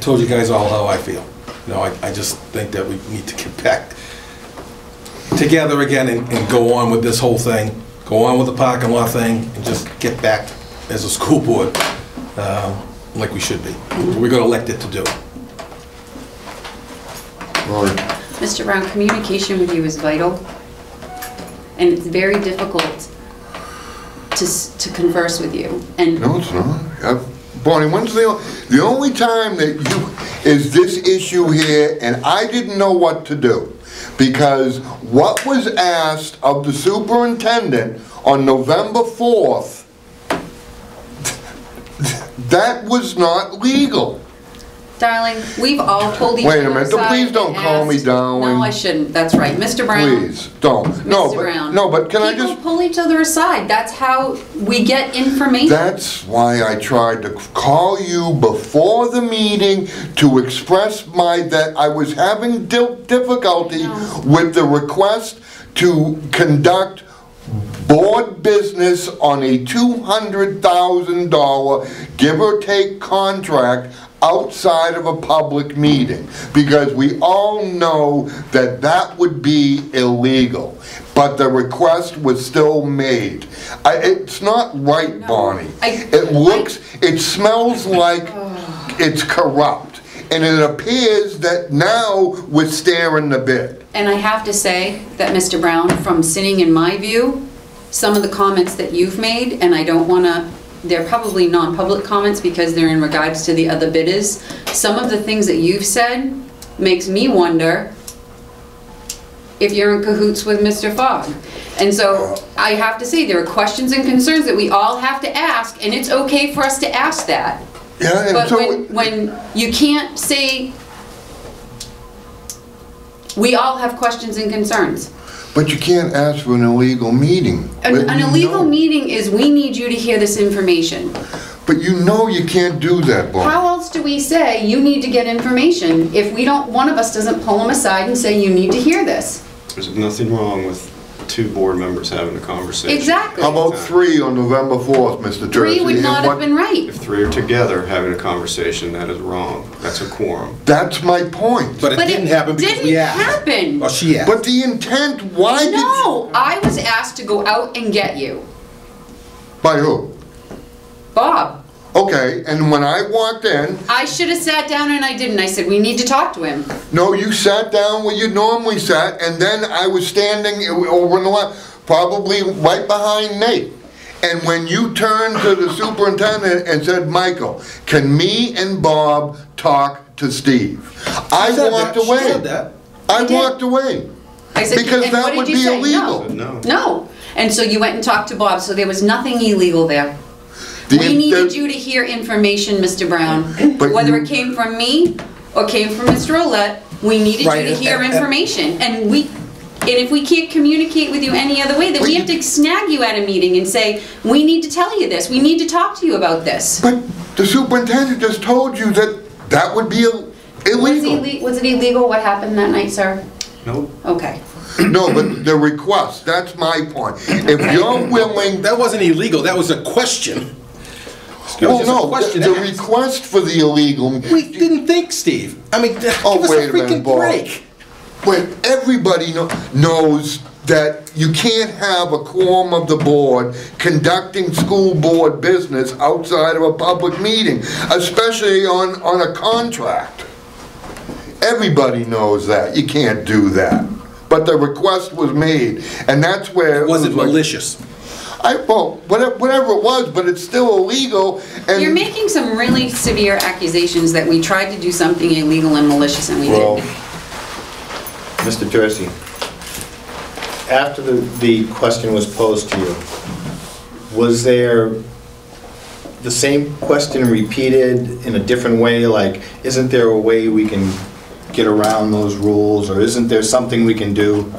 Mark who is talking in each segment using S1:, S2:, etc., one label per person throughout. S1: told you guys all how I feel. You know, I, I just think that we need to get back together again and, and go on with this whole thing, go on with the parking lot thing, and just get back as a school board, uh, like we should be. We got elected to do.
S2: Lori,
S3: Mr. Brown, communication with you is vital, and it's very difficult to, s- to converse with you. And
S2: no, it's not. Uh, Bonnie, when's the, o- the only time that you, is this issue here, and I didn't know what to do. Because what was asked of the superintendent on November 4th, that was not legal.
S3: darling, we've all pulled each
S2: Wait a
S3: other
S2: minute,
S3: aside
S2: please don't
S3: and
S2: call me
S3: asked-
S2: darling.
S3: No, I shouldn't, that's right. Mr. Brown.
S2: Please, don't. No,
S3: Mr.
S2: but,
S3: Brown.
S2: no, but can I just?
S3: People pull each other aside, that's how we get information.
S2: That's why I tried to call you before the meeting to express my, that I was having dil- difficulty
S3: I know.
S2: with the request to conduct board business on a $200,000 give or take contract outside of a public meeting, because we all know that that would be illegal. But the request was still made. I, it's not right,
S3: No.
S2: Bonnie.
S3: I-
S2: It looks, it smells like it's corrupt. And it appears that now we're staring the bid.
S3: And I have to say that, Mr. Brown, from sitting in my view, some of the comments that you've made, and I don't want to, they're probably non-public comments because they're in regards to the other bidders, some of the things that you've said makes me wonder if you're in cahoots with Mr. Fogg. And so I have to say, there are questions and concerns that we all have to ask, and it's okay for us to ask that.
S2: Yeah, and
S3: But
S2: so.
S3: when, when you can't say, we all have questions and concerns.
S2: But you can't ask for an illegal meeting.
S3: An
S2: But
S3: an
S2: you
S3: illegal
S2: know-
S3: meeting is, we need you to hear this information.
S2: But you know you can't do that, Bob.
S3: How else do we say, you need to get information, if we don't, one of us doesn't pull them aside and say, you need to hear this?
S4: There's nothing wrong with two board members having a conversation.
S3: Exactly.
S2: How about three on November 4th, Mr. Jersey?
S3: Three would
S2: and
S3: not
S2: what-
S3: have been right.
S4: If three are together having a conversation, that is wrong. That's a quorum.
S2: That's my point.
S1: But it
S3: But
S1: didn't happen because we asked.
S3: Didn't
S1: Well,
S3: happen.
S1: she asked.
S2: But the intent, why did...
S3: No, I was asked to go out and get you.
S2: By who?
S3: Bob,
S2: Okay, and when I walked in,
S3: I should have sat down and I didn't. I said, we need to talk to him.
S2: no, you sat down where you normally sat, and then I was standing over in the left, probably right behind Nate. And when you turned to the superintendent and said, Michael, can me and Bob talk to Steve? I
S1: She said
S2: walked
S1: that. She
S2: away.
S1: said that.
S2: I
S3: did.
S2: walked away.
S3: I said,
S2: Because
S3: "And
S2: that
S3: what did
S2: would
S3: you
S2: be
S3: say?"
S2: illegal.
S4: But no.
S3: No. And so you went and talked to Bob, so there was nothing illegal there.
S2: The-
S3: We needed you
S2: the-
S3: to hear information, Mr. Brown,
S2: But
S3: whether
S2: you-
S3: it came from me or came from Mr. Olet, we needed you
S1: Right,
S3: to
S1: and-
S3: hear
S1: and-
S3: information. And we, and if we can't communicate with you any other way,
S2: But
S3: then we
S2: you-
S3: have to snag you at a meeting and say, we need to tell you this, we need to talk to you about this.
S2: But the superintendent just told you that that would be ill-
S3: Was
S2: illegal.
S3: it, was it illegal what happened that night, sir?
S4: Nope.
S3: Okay.
S2: No, but the request, that's my point. If you're willing,
S1: That wasn't illegal, that was a question. It was
S2: well,
S1: just a
S2: no,
S1: question
S2: the
S1: asked.
S2: request for the illegal,
S1: We didn't think, Steve. I mean, give
S2: Oh,
S1: us
S2: wait
S1: a
S2: a minute,
S1: freaking
S2: Bob.
S1: break.
S2: when everybody kno- knows that you can't have a quorum of the board conducting school board business outside of a public meeting, especially on, on a contract. Everybody knows that, you can't do that. But the request was made, and that's where.
S1: Was it
S2: like-
S1: malicious?
S2: I, well, whatever, whatever it was, but it's still illegal, and.
S3: You're making some really severe accusations that we tried to do something illegal and malicious and we
S5: Well,
S3: didn't.
S5: Mr. Jersey, after the, the question was posed to you, was there the same question repeated in a different way? Like, isn't there a way we can get around those rules, or isn't there something we can do?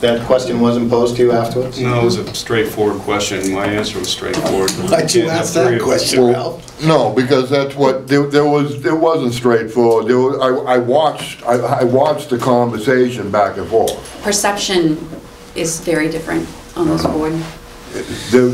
S5: That question wasn't posed to you afterwards?
S4: No, it was a straightforward question. My answer was straightforward.
S1: Why'd you
S4: Can't have
S1: ask that
S4: three of us.
S1: question?
S2: Well, No, because that's what, there, there was, it wasn't straightforward, there was, I, I watched, I, I watched the conversation back and forth.
S3: Perception is very different on this board.
S2: There,